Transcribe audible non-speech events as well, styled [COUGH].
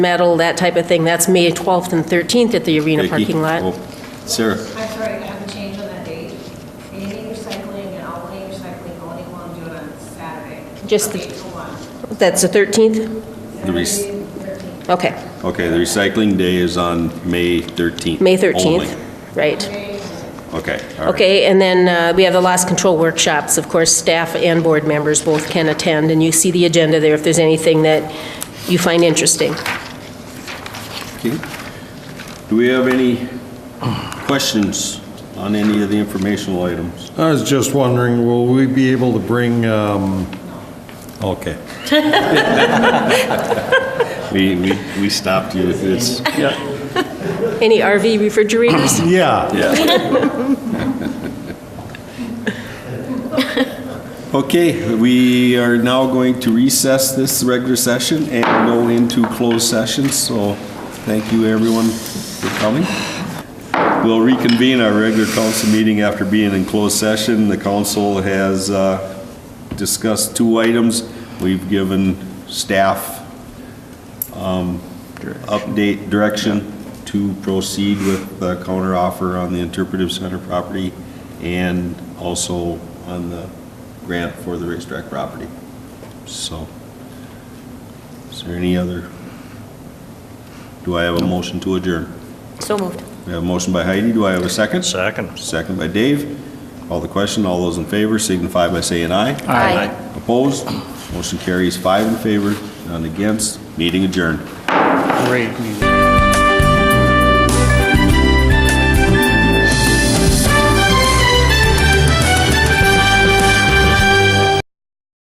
metal, that type of thing. That's May 12th and 13th at the arena Vicky? parking lot. Oh, Sarah, I'm sorry, I have a change on that date. Community recycling and all day recycling only want to do it on Saturday. Just the- from eight to one. That's the 13th? the rec- Saturday, 13th. Okay, okay, the recycling day is on May 13th. May only. 13th, right. Okay, all right. Okay, and then uh, we have the loss control workshops. Of course, staff and board members both can attend, and you see the agenda there if there's anything that you find interesting. Okay. Do we have any questions on any of the informational items? I was just wondering, will we be able to bring, um, okay. We, we, we stopped you with this. Any RV refrigerators? Yeah, Yeah. [LAUGHS] Okay, we are now going to recess this regular session and go into closed session, so thank you everyone for coming. We'll reconvene our regular council meeting after being in closed session. The council has uh, discussed two items. We've given staff um, update direction to proceed with the counteroffer on the interpretive center property and also on the grant for the racetrack property. So, is there any other? Do I have a motion to adjourn? So moved. We have a motion by Heidi, do I have a second? Second. Second by Dave. Call the question, all those in favor signify by saying aye. Aye. Opposed? Motion carries five in favor, none against, meeting adjourned. Great meeting.